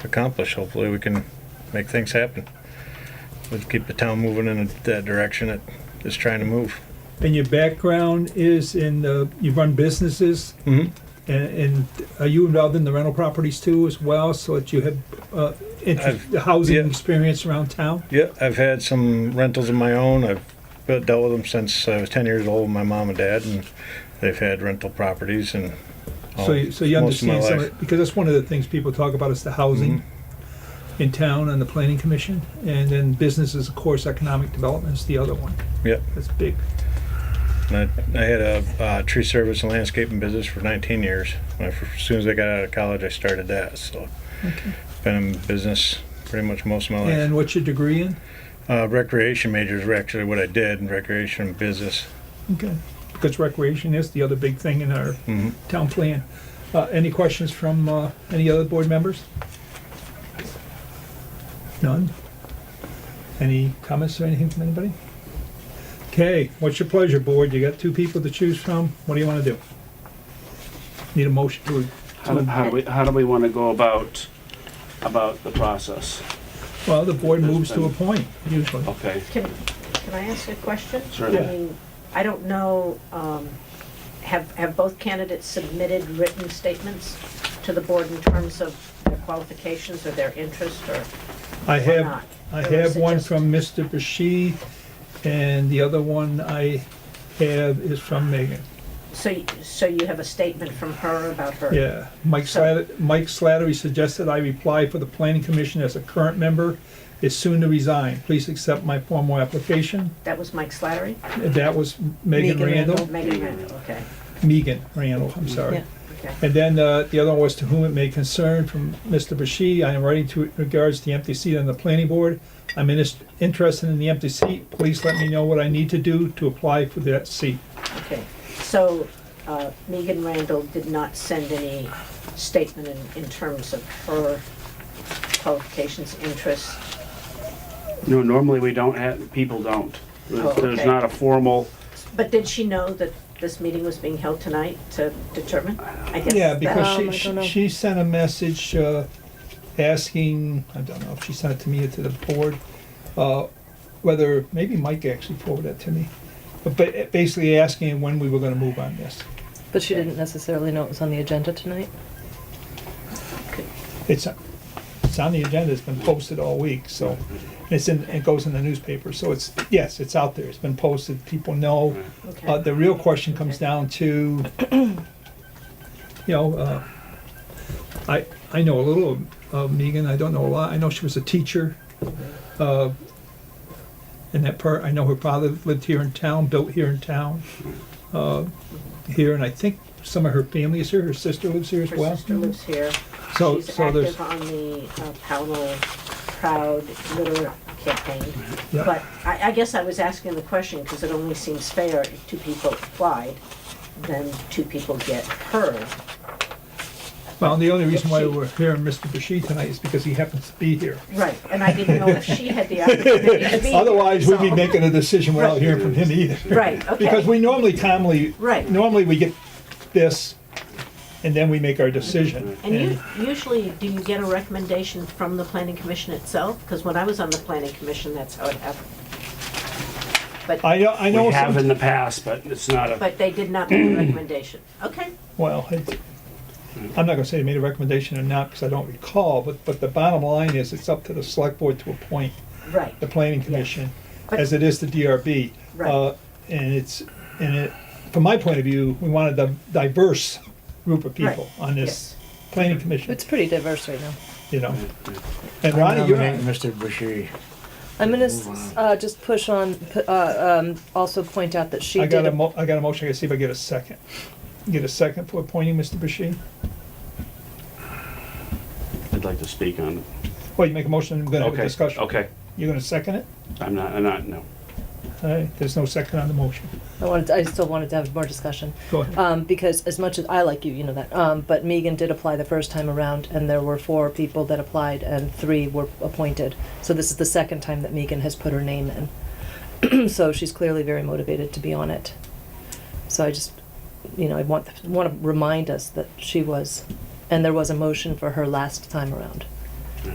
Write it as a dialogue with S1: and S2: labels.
S1: accomplish. Hopefully, we can make things happen. Let's keep the town moving in that direction it is trying to move.
S2: And your background is in, uh, you run businesses,
S1: hmm
S2: and, and are you involved in the rental properties too as well, so that you have, uh, interest,
S1: I've-
S2: the housing
S1: yeah.
S2: experience around town?
S1: Yeah, I've had some rentals of my own. I've built- dealt with them since I was 10 years old, with my mom and dad, and they've had rental properties and all-
S2: So, you- so you
S1: Oh, most of my
S2: understand some,
S1: life.
S2: of- because that's one of the things people talk about is the housing
S1: Mm-hmm.
S2: in town and the planning commission, and then businesses, of course, economic development is the other one.
S1: Yep.
S2: That's big.
S1: And I, I had a uh, tree service and landscaping business for 19 years. When I fir- as soon as I got out of college, I started that. So,
S2: Okay.
S1: been in business pretty much most of my life.
S2: And what's your degree in?
S1: Uh, recreation majors were actually what I did in recreation and business.
S2: Okay. Because recreation is the other big thing in our
S1: hmm
S2: town plan. Uh, Any questions from uh, any other board members? None? Any comments or anything from anybody? Okay, what's your pleasure, board? You got two people to choose from. What do you want to do? Need a motion to,
S3: How do, how do we, how do we wanna go about, about the process?
S2: well, the board moves to appoint usually.
S3: Okay,
S4: Can, can I ask a question?
S3: Certainly.
S4: I mean, I don't know, um, have, have both candidates submitted written statements to the board in terms of their qualifications or their interest or
S2: I
S4: or
S2: have,
S4: not?
S2: I
S4: Or
S2: have
S4: is it
S2: one
S4: just-
S2: from Mr. Bashir, and the other one I have is from Megan.
S4: So, y- so you have a statement from her about her?
S2: Yeah, Mike
S4: So-
S2: Slattery, Mike Slattery suggested I reply for the planning commission as a current member, is soon to resign. Please accept my formal application.
S4: That was Mike Slattery?
S2: And That was Megan
S5: Megan
S2: Randall,
S5: Randall.
S4: Megan Randall, okay,
S2: Megan Randall, I'm sorry.
S5: Yeah.
S4: okay.
S2: And then uh, the other one was to whom it may concern from Mr. Bashir, I am writing to regards to the empty seat on the planning board. I'm inis- interested in the empty seat. Please let me know what I need to do to apply for that seat.
S4: Okay, so uh, Megan Randall did not send any statement in, in terms of her qualifications, interests?
S3: no, normally we don't have, people don't. There's
S4: Oh,
S3: there's
S4: okay.
S3: not a formal,
S4: But did she know that this meeting was being held tonight to determine? I guess
S2: Yeah,
S4: that-
S2: because
S5: Um, I
S2: she,
S5: don't
S2: she,
S5: know.
S2: she sent a message, uh, asking, I don't know if she sent it to me or to the board, uh, whether, maybe Mike actually forwarded it to me. But ba- basically asking when we were gonna move on this.
S5: But she didn't necessarily know it was on the agenda tonight.
S2: It's, it's on the agenda, it's been posted all week, so, it's in, it goes in the newspaper, so it's, yes, it's out there, it's been posted, people know.
S4: Okay.
S2: Uh, the real question comes down to, you know, uh, I, I know a little of Megan, I don't know a lot, I know she was a teacher. uh, And that part, I know her father lived here in town, built here in town, uh, here, and I think some of her family is here, her sister lives here as
S4: Her
S2: uh, well.
S4: sister lives here.
S2: So,
S4: She's
S2: so there's,
S4: active on the uh, Powell Proud Litter campaign.
S2: Yeah.
S4: But I, I guess I was asking the question because it only seems fair if two people applied, then two people get her.
S2: well, the only reason why
S4: she-
S2: we're here and Mr. Bashir tonight is because he happens to be here.
S4: Right, and I didn't know if she had the opportunity to be here,
S2: Otherwise, we'd be
S4: so-
S2: making a decision without hearing from him either.
S4: Right, okay.
S2: Because we normally calmly,
S4: Right.
S2: normally we get this, and then we make our decision.
S4: And you, usually, do you get a recommendation from the planning commission itself? Because when I was on the planning commission, that's how it happened. But,
S2: I know, I know,
S3: we have in
S2: some-
S3: the past, but it's not a,
S4: but they did not make a recommendation. Okay,
S2: well, it- I'm not gonna say they made a recommendation or not, because I don't recall, but, but the bottom line is, it's up to the select board to appoint
S4: right,
S2: the planning commission,
S4: But-
S2: as it is the DRB.
S4: Right.
S2: Uh, And it's, and it, from my point of view, we wanted a diverse group of people
S4: Right,
S2: on this planning commission,
S5: It's pretty diverse right now.
S2: you know.
S3: yeah.
S2: And
S6: I
S2: Ronnie, you're
S6: nominate Mr. Bashiri.
S5: I'm gonna s- uh, just push on. pu- Uh, um, also point out that she
S2: I
S5: did.
S2: got a
S5: a-
S2: mo, I got a motion, I gotta see if I get a second. Get a second for appointing Mr. Bashir?
S3: I'd like to speak on it.
S2: Well, you make a motion, I'm gonna have a
S3: Okay,
S2: discussion.
S3: Okay,
S2: You're gonna second it?
S3: I'm not, I'm not, no.
S2: All right, there's no second on the motion.
S5: I wanted. I still wanted to have more discussion.
S2: Go ahead.
S5: Um, because as much as I like you, you know that. Um, but Megan did apply the first time around, and there were four people that applied, and three were appointed. So this is the second time that Megan has put her name in. so she's clearly very motivated to be on it. So I just, you know, I want want to remind us that she was, and there was a motion for her last time around.